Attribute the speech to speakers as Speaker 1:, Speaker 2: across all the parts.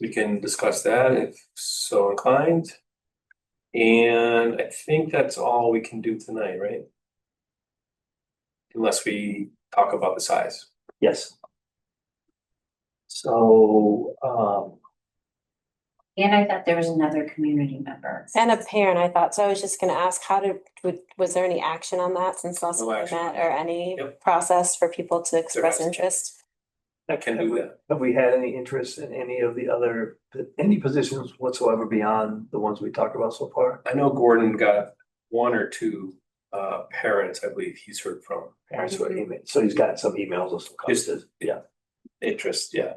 Speaker 1: we can discuss that if so inclined. And I think that's all we can do tonight, right? Unless we talk about the size.
Speaker 2: Yes,
Speaker 1: So, um,
Speaker 3: And I thought there was another community member.
Speaker 4: And a parent, I thought, so I was just gonna ask, how did, would- was there any action on that since last
Speaker 1: No
Speaker 4: we met
Speaker 1: action.
Speaker 4: or any
Speaker 1: Yep.
Speaker 4: process for people to express
Speaker 1: hasn't.
Speaker 4: interest?
Speaker 1: I can do that.
Speaker 2: have we had any interest in any of the other, any positions whatsoever beyond the ones we talked about so far?
Speaker 1: I know Gordon got one or two uh parents, I believe he's heard from.
Speaker 2: Parents or email, so he's got some emails or some
Speaker 1: Just-
Speaker 2: content, yeah,
Speaker 1: Interest, yeah.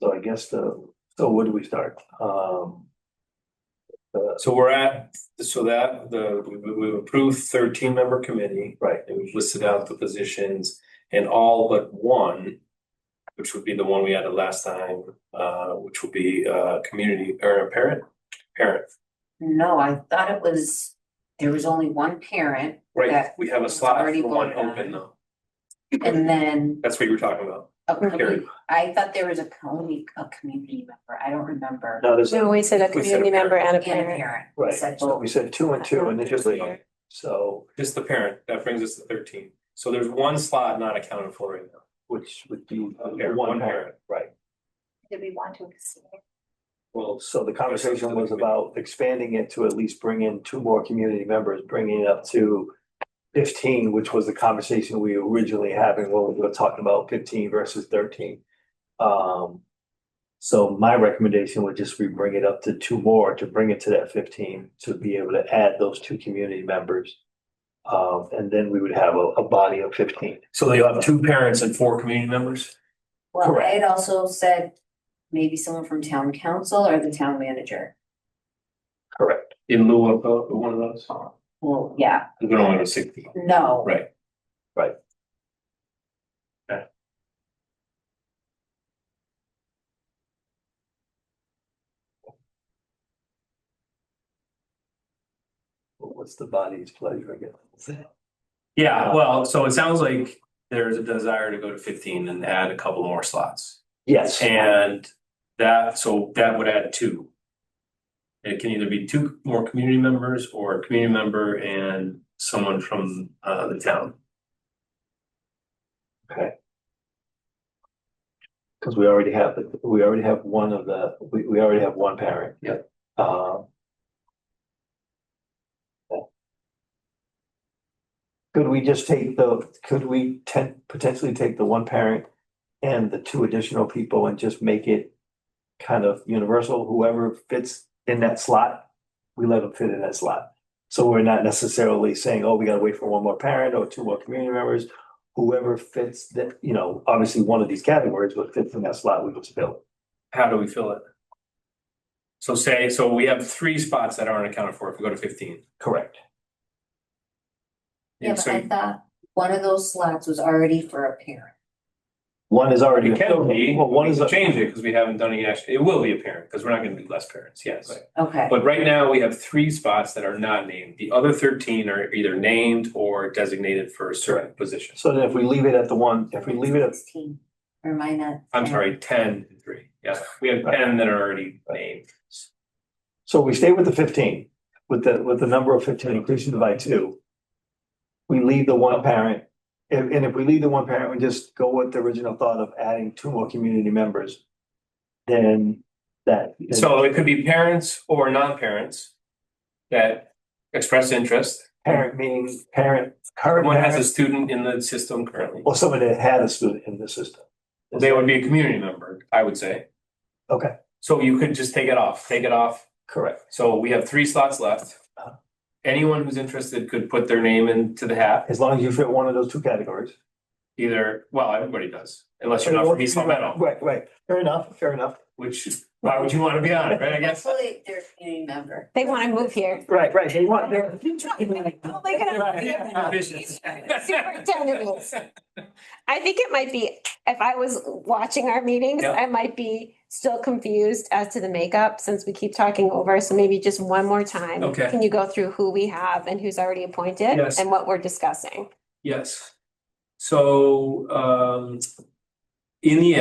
Speaker 2: so I guess the, so where do we start? Um.
Speaker 1: So we're at, so that the, we- we- we've approved thirteen member committee.
Speaker 2: Right.
Speaker 1: And we've listed out the positions and all but one, which would be the one we added last time, uh, which would be uh community or a parent, parent.
Speaker 3: No, I thought it was, there was only one parent
Speaker 1: Right,
Speaker 3: Yeah.
Speaker 1: we have a slot
Speaker 3: Already
Speaker 1: for one
Speaker 3: voted on.
Speaker 1: open though.
Speaker 3: and then
Speaker 1: That's what you were talking about.
Speaker 3: a community,
Speaker 1: Carrie.
Speaker 3: I thought there was a county, a community member. I don't remember.
Speaker 2: No, there's,
Speaker 4: No, we said
Speaker 1: We said
Speaker 4: a
Speaker 1: a
Speaker 4: community member and a
Speaker 3: And a
Speaker 4: parent.
Speaker 3: parent.
Speaker 2: right,
Speaker 3: Said
Speaker 2: so
Speaker 3: both.
Speaker 2: we said two and two initially,
Speaker 4: Here.
Speaker 2: so
Speaker 1: Just the parent, that brings us to thirteen. So there's one slot not accounted for right now.
Speaker 2: which would be
Speaker 1: A parent,
Speaker 2: one
Speaker 1: one
Speaker 2: parent,
Speaker 1: parent.
Speaker 2: right?
Speaker 3: Did we want to exceed?
Speaker 1: Well,
Speaker 2: So the conversation was about expanding it to at least bring in two more community members, bringing it up to fifteen, which was the conversation we originally having when we were talking about fifteen versus thirteen. Um, so my recommendation would just be bring it up to two more to bring it to that fifteen, to be able to add those two community members. Um, and then we would have a, a body of fifteen.
Speaker 1: so you'll have two parents and four community members?
Speaker 3: Well, I
Speaker 2: Correct.
Speaker 3: had also said maybe someone from town council or the town manager.
Speaker 2: Correct.
Speaker 1: In lieu of uh, one of those?
Speaker 3: Well, yeah,
Speaker 1: We don't want to say.
Speaker 3: no.
Speaker 1: Right.
Speaker 2: What's the body's pleasure again? Uh,
Speaker 1: Yeah, well, so it sounds like there's a desire to go to fifteen and add a couple more slots.
Speaker 2: Yes.
Speaker 1: And that, so that would add two. It can either be two more community members or a community member and someone from uh the town.
Speaker 2: Because we already have, the- we already have one of the, we, we already have one parent.
Speaker 1: Yep.
Speaker 2: Um. yeah. Could we just take the, could we ten, potentially take the one parent and the two additional people and just make it kind of universal, whoever fits in that slot, we let them fit in that slot. So we're not necessarily saying, oh, we gotta wait for one more parent or two more community members whoever fits that, you know, obviously one of these categories, but fits in that slot, we would fill.
Speaker 1: How do we fill it? So say, so we have three spots that aren't accounted for if we go to fifteen.
Speaker 2: Correct.
Speaker 3: Yeah,
Speaker 1: And
Speaker 3: but
Speaker 1: so
Speaker 3: I thought one of those slots was already for a parent.
Speaker 2: One is already.
Speaker 1: it can be,
Speaker 2: Well, one
Speaker 1: we
Speaker 2: is.
Speaker 1: can
Speaker 2: a-
Speaker 1: change it because we haven't done any action. It will be a parent because we're not going to do less parents, yes.
Speaker 2: Right.
Speaker 3: Okay,
Speaker 1: But right now, we have three spots that are not named. The other thirteen are either named or designated for certain positions.
Speaker 2: So then if we leave it at the one, if we leave it at,
Speaker 3: Sixteen, or am I not?
Speaker 1: I'm sorry, ten and three. Yeah, we have ten that are already named.
Speaker 2: so we stay with the fifteen, with the, with the number of fifteen increasing by two. We leave the one parent, and, and if we leave the one parent, we just go with the original thought of adding two more community members. Then that.
Speaker 1: So it could be parents or non-parents that express interest.
Speaker 2: Parent meaning parent, current
Speaker 1: Someone has a
Speaker 2: parent,
Speaker 1: student in the system currently.
Speaker 2: or someone that had a student in the system.
Speaker 1: They would be a community member, I would say.
Speaker 2: Okay.
Speaker 1: So you could just take it off, take it off
Speaker 2: Correct.
Speaker 1: So we have three slots left. Anyone who's interested could put their name into the hat,
Speaker 2: As long as you fit one of those two categories.
Speaker 1: either, well, everybody does, unless you're not from East Long
Speaker 2: Right, right. Fair enough, fair enough.
Speaker 1: which, why would you want to be on it, right, I guess?
Speaker 3: Hopefully they're a community member.
Speaker 4: They wanna move here.
Speaker 2: Right, right. They want, they're,
Speaker 4: Oh my God.
Speaker 1: Ambitious.
Speaker 4: Superintendent. I think it might be, if I was watching our meetings,
Speaker 1: Yeah.
Speaker 4: I might be still confused as to the makeup since we keep talking over. So maybe just one more time.
Speaker 1: Okay.
Speaker 4: Can you go through who we have and who's already appointed
Speaker 1: Yes.
Speaker 4: and what we're discussing?
Speaker 1: Yes. So, um, in the